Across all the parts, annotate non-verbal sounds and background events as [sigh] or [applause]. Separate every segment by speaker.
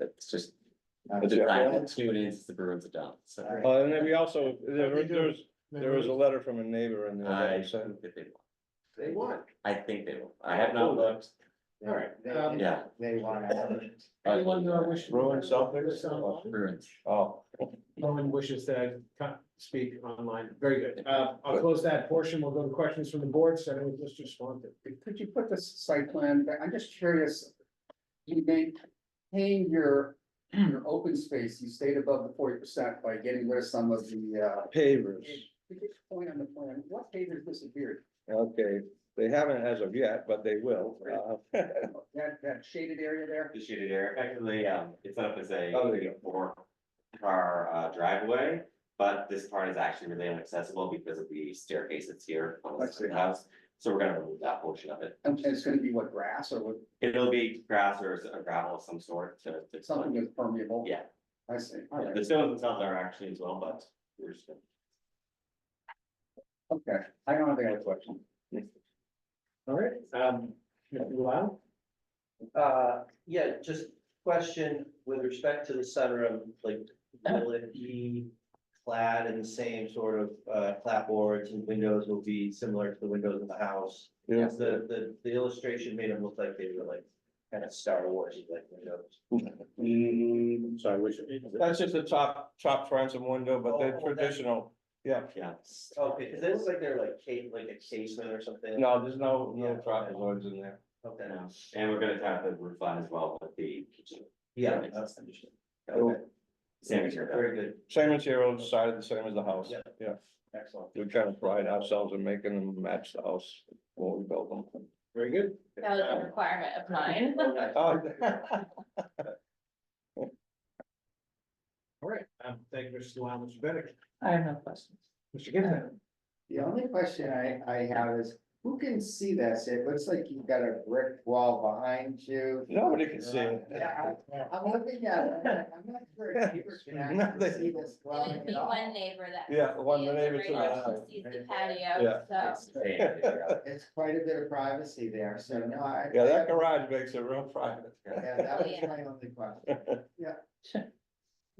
Speaker 1: It's just,
Speaker 2: Not
Speaker 1: the
Speaker 2: a
Speaker 1: Brown
Speaker 2: jail.
Speaker 1: experience, the Bruins adopt, so.
Speaker 2: All right.
Speaker 3: Well, and then we also, there
Speaker 4: I think there
Speaker 3: there
Speaker 4: was-
Speaker 3: was, there was a letter from a neighbor in there that
Speaker 1: I
Speaker 3: I sent.
Speaker 1: think that they will.
Speaker 4: They want,
Speaker 1: I think they will. I have not looked.
Speaker 4: all right.
Speaker 2: They-
Speaker 4: um,
Speaker 1: Yeah,
Speaker 2: They want to have it.
Speaker 4: Anyone who wishes.
Speaker 2: Rowan Suffolk?
Speaker 1: Bruins.
Speaker 2: Oh,
Speaker 4: Rowan wishes to co- speak online, very good, uh, I'll close that portion, we'll go to questions from the board, starting with Mr. Swanton.
Speaker 5: Could you put this site plan, back? I'm just curious, you maintain your, your open space, you stayed above the forty percent by getting rid of some of the, uh.
Speaker 3: Pavers,
Speaker 5: Could you point on the plan, what pavers disappeared?
Speaker 3: okay, they haven't as of yet, but they will. Uh,
Speaker 5: That, that shaded area there?
Speaker 1: The shaded area, effectively, um, it's up as a
Speaker 3: Oh, there you
Speaker 1: four car uh, driveway. But this part is actually really inaccessible because of the staircase that's here on the
Speaker 5: I see.
Speaker 1: second house. So we're gonna remove that portion of it.
Speaker 5: And and it's gonna be what, grass or what,
Speaker 1: It'll be grass or s- gravel of some sort to. to-
Speaker 5: something that's permeable?
Speaker 1: Yeah.
Speaker 5: I see, all
Speaker 1: Yeah,
Speaker 5: right,
Speaker 1: The stones themselves are actually as well, but we're just gonna.
Speaker 5: okay, I don't have any other question.
Speaker 4: All right, um, Mr. Lau?
Speaker 6: Uh, yeah, just question with respect to the sunroom, like, will it be clad in the same sort of, uh, clapboards and windows will be similar to the windows in the house?
Speaker 3: Yeah.
Speaker 6: The, the, the illustration made them look like they were like, kind of Star Wars, like windows.
Speaker 4: Sorry, which?
Speaker 3: That's just a top, top transom window, but they're
Speaker 6: Oh, that-
Speaker 3: traditional. Yeah,
Speaker 1: Yeah,
Speaker 6: Okay, cause it looks like they're like ca- like a casement or something.
Speaker 3: no, there's no,
Speaker 6: Yeah.
Speaker 3: no trapezoids in there.
Speaker 6: Okay,
Speaker 1: no. and we're gonna tap the roof line as well with the kitchen.
Speaker 6: yeah, that's understood.
Speaker 3: Cool.
Speaker 6: Okay,
Speaker 1: Same as your-
Speaker 6: very good,
Speaker 3: Same material, decided the same as the house.
Speaker 6: Yeah.
Speaker 3: Yeah,
Speaker 6: excellent,
Speaker 3: we kind of pride ourselves in making them match the house when we build them.
Speaker 6: [laughs] very good.
Speaker 7: That was a requirement of mine.
Speaker 3: Oh,
Speaker 4: All right, um, thank you, Mr. Lau, Mr. Bennett,
Speaker 7: I have no questions.
Speaker 4: Mr. Ginnah.
Speaker 5: The only question I, I have is, who can see this? It looks like you've got a brick wall behind you.
Speaker 3: Nobody can see it.
Speaker 5: Yeah, I- I'm looking at it, I'm like, I'm not sure if
Speaker 3: [laughs]
Speaker 5: you can actually see this
Speaker 7: It'd
Speaker 5: dwelling
Speaker 7: be
Speaker 5: at all.
Speaker 7: one neighbor that.
Speaker 3: Yeah, the one
Speaker 7: sees it,
Speaker 3: neighbor to the
Speaker 7: right? She
Speaker 3: side.
Speaker 7: Sees the
Speaker 3: Yeah.
Speaker 7: patio, so.
Speaker 1: Yeah.
Speaker 5: It's quite a bit of privacy there, so no, I.
Speaker 3: Yeah, that garage makes it real private.
Speaker 5: Yeah, that was my only question. [laughs]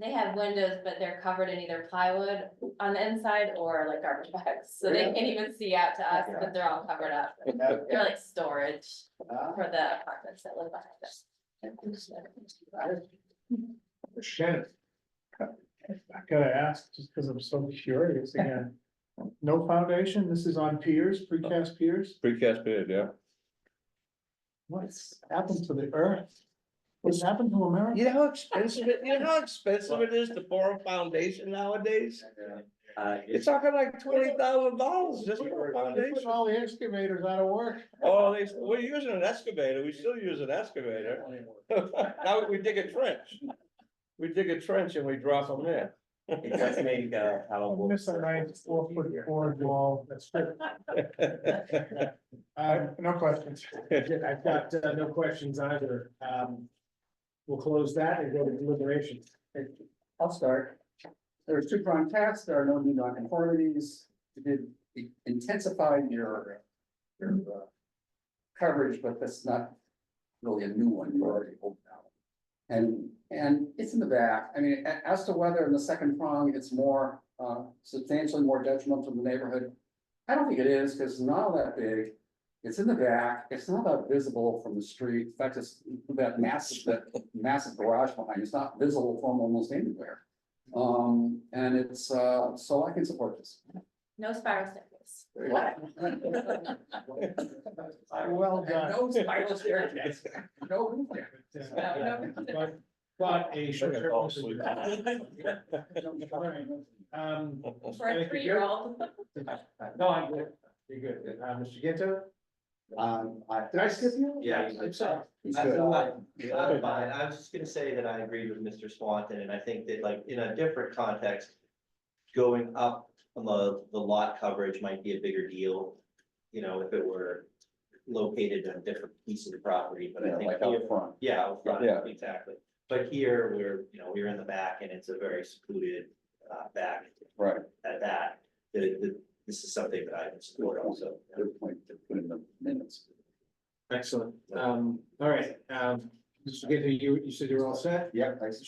Speaker 7: They have windows, but they're covered in either plywood on the inside or like garbage bags, so they can't even see out to us, but they're all covered up.
Speaker 5: No,
Speaker 7: They're like storage
Speaker 5: uh,
Speaker 7: for the apartments that live behind us.
Speaker 4: Shannon. I gotta ask, just because I'm so curious again, no foundation, this is on piers, precast piers,
Speaker 3: Precast period, yeah.
Speaker 4: what's happened to the earth? What's happened to America?
Speaker 3: You know how expensive it, you know how expensive it is to pour a foundation nowadays?
Speaker 1: [laughs] Uh,
Speaker 6: [laughs]
Speaker 3: It's talking like twenty thousand dollars just for a
Speaker 4: They're putting
Speaker 3: foundation.
Speaker 4: all the excavators out of work.
Speaker 3: Oh, they, we're using an excavator, we still use an excavator. [laughs] Now we dig a trench. We dig a trench and we drop them in. [laughs]
Speaker 1: It does make, uh,
Speaker 3: Oh,
Speaker 1: how.
Speaker 4: I'll Miss a nice four foot board wall, that's good. Uh, no
Speaker 3: [laughs]
Speaker 4: questions. I've got uh, no questions either. Um, we'll close that and go to deliberation.
Speaker 5: I'll start. There's two prong tests, there are no new nonconformities, you did intensify your, your, uh, coverage, but that's not really a new one, you already opened out. And, and it's in the back, I mean, a- as to whether in the second prong, it's more, uh, substantially more detrimental to the neighborhood. I don't think it is, because it's not all that big, it's in the back, it's not that visible from the street, in fact, it's that massive, that massive garage behind, you. it's not visible from almost anywhere. Um, and it's, uh, so I can support this.
Speaker 7: No spiral staircase.
Speaker 4: Uh, Well done.
Speaker 5: No spiral staircase, no roof there.
Speaker 4: But- But a short.
Speaker 3: They're gonna fall [laughs] asleep.
Speaker 4: Um,
Speaker 7: For a three-year-old.
Speaker 4: no, I'm good. You're good. Uh, Mr. Ginta?
Speaker 5: Um, I,
Speaker 4: Did I skip you?
Speaker 6: Yeah.
Speaker 4: I'm sorry.
Speaker 5: he's
Speaker 6: I-
Speaker 5: good.
Speaker 6: I- I'm fine. I was just gonna say that I agree with Mr. Swanton, and I think that like in a different context. Going up on the, the lot coverage might be a bigger deal, you know, if it were located in a different piece of the property, but I think.
Speaker 5: Like
Speaker 6: here-
Speaker 5: out front.
Speaker 6: Yeah, out front,
Speaker 3: Yeah.
Speaker 6: exactly. But here, we're, you know, we're in the back and it's a very secluded, uh, back.
Speaker 3: Right.
Speaker 6: At that, that, that, this is something that I can support also.
Speaker 5: Good point to put in the minutes.
Speaker 4: Excellent. Um, all right, um, Mr. Gaither, you, you said you're all set?
Speaker 5: Yep, I